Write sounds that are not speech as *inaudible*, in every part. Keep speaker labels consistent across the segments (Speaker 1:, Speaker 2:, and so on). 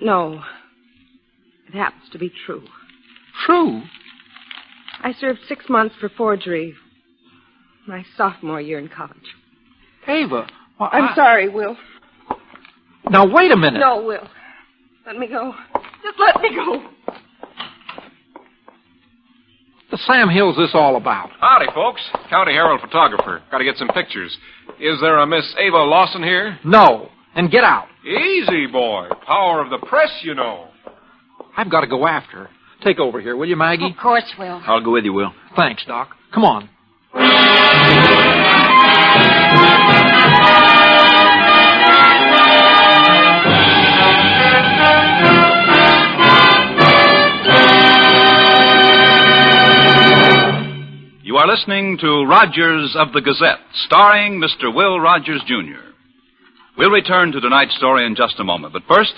Speaker 1: No. It happens to be true.
Speaker 2: True.
Speaker 1: I served six months for forgery my sophomore year in college.
Speaker 2: Ava. Well,
Speaker 1: I'm
Speaker 3: Ah.
Speaker 2: I-
Speaker 1: sorry, Will.
Speaker 2: Now, wait a minute.
Speaker 1: No, Will. Let me go. Just let me go.
Speaker 2: The Sam Hill's this all about?
Speaker 4: Howdy, folks. County Herald photographer. Got to get some pictures. Is there a Miss Ava Lawson here?
Speaker 2: No. And get out.
Speaker 4: Easy, boy. Power of the press, you know.
Speaker 2: I've got to go after her. Take over here, will you, Maggie?
Speaker 3: Of course, Will.
Speaker 5: I'll go with you, Will.
Speaker 2: Thanks, Doc. Come on.
Speaker 6: You are listening to Rogers of the Gazette, starring Mr. Will Rogers, Jr. We'll return to tonight's story in just a moment, but first,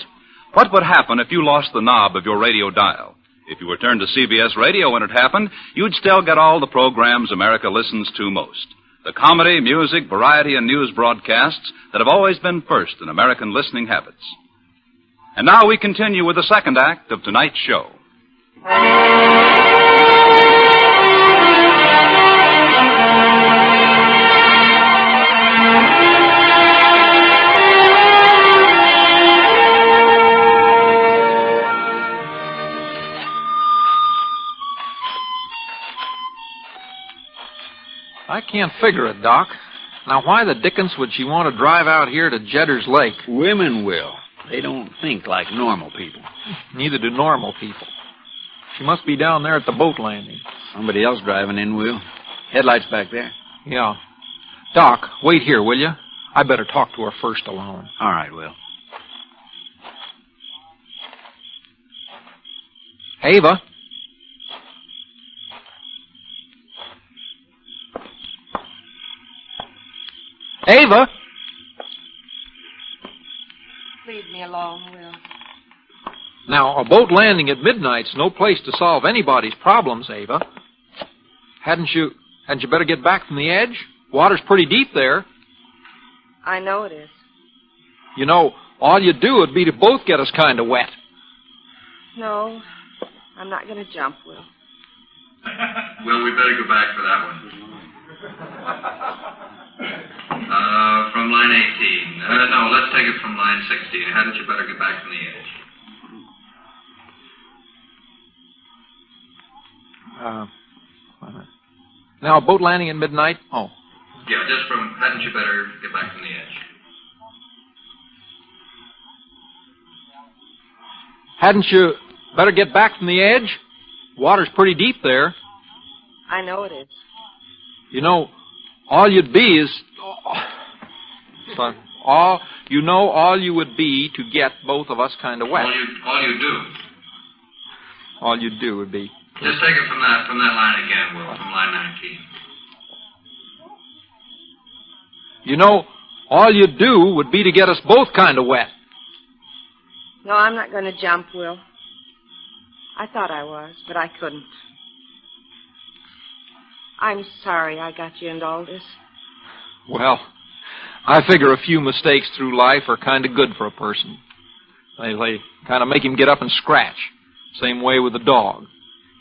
Speaker 6: what would happen if you lost the knob of your radio dial? If you returned to CBS Radio when it happened, you'd still get all the programs America listens to most. The comedy, music, variety, and news broadcasts that have always been first in American listening habits. And now we continue with the second act of tonight's show.
Speaker 2: I can't figure it, Doc. Now, why the dickens would she want to drive out here to Jedders Lake?
Speaker 5: Women will. They don't think like normal people.
Speaker 2: Neither do normal people. She must be down there at the boat landing.
Speaker 5: Somebody else driving in, Will. Headlights back there.
Speaker 2: Yeah. Doc, wait here, will you? I better talk to her first alone.
Speaker 5: All right, Will.
Speaker 2: Ava? Ava?
Speaker 3: Leave me alone, Will.
Speaker 2: Now, a boat landing at midnight's no place to solve anybody's problems, Ava. Hadn't you hadn't you better get back from the edge? Water's pretty deep there.
Speaker 1: I know it is.
Speaker 2: You know, all you'd do would be to both get us kind of wet.
Speaker 1: No, I'm not going to jump, Will.
Speaker 7: Well, we better go back for that one. Uh, from line 18. Uh, no, let's take it from line 16. Hadn't you better get back from the edge?
Speaker 2: Uh, wait a minute. now, a boat landing at midnight? Oh,
Speaker 7: Yeah, just from hadn't you better get back from the edge?
Speaker 2: hadn't you better get back from the edge? Water's pretty deep there.
Speaker 1: I know it is.
Speaker 2: You know, all you'd be is. Son, all you know, all you would be to get both of us kind of wet.
Speaker 7: All you, all you do.
Speaker 2: All you'd do would be.
Speaker 7: Just take it from that from that line again, Will. From line 19.
Speaker 2: You know, all you'd do would be to get us both kind of wet.
Speaker 1: No, I'm not going to jump, Will. I thought I was, but I couldn't. I'm sorry I got you into all this.
Speaker 2: Well, I figure a few mistakes through life are kind of good for a person. They, they kind of make him get up and scratch. Same way with a dog.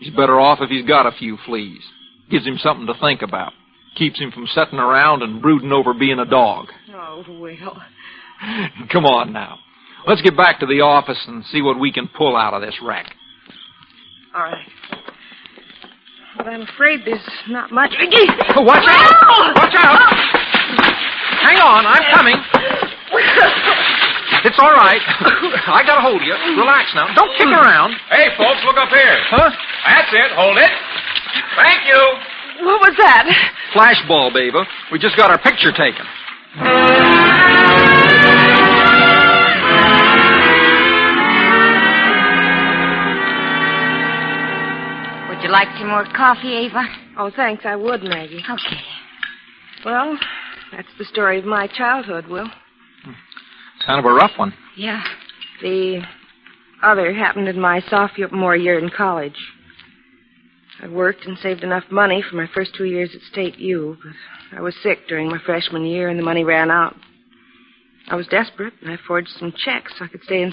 Speaker 2: He's better off if he's got a few fleas. Gives him something to think about. Keeps him from sitting around and brooding over being a dog.
Speaker 1: Oh, Will.
Speaker 2: *laughs* Come on now. Let's get back to the office and see what we can pull out of this wreck.
Speaker 1: All right. But I'm afraid there's not much. Will!
Speaker 2: Oh, Watch out! Watch out! Hang on, I'm coming. It's all right. I got a hold of you. Relax now. Don't kick around.
Speaker 4: Hey, folks, look up here.
Speaker 2: Huh?
Speaker 4: That's it. Hold it. Thank you.
Speaker 1: What was that?
Speaker 2: Flashball, baby. We just got our picture taken.
Speaker 3: Would you like some more coffee, Ava?
Speaker 1: Oh, thanks. I would, Maggie.
Speaker 3: Okay.
Speaker 1: Well, that's the story of my childhood, Will.
Speaker 2: Kind of a rough one.
Speaker 3: Yeah.
Speaker 1: The other happened in my sophomore year in college. I worked and saved enough money for my first two years at State U, but I was sick during my freshman year and the money ran out. I was desperate and I forged some checks so I could stay in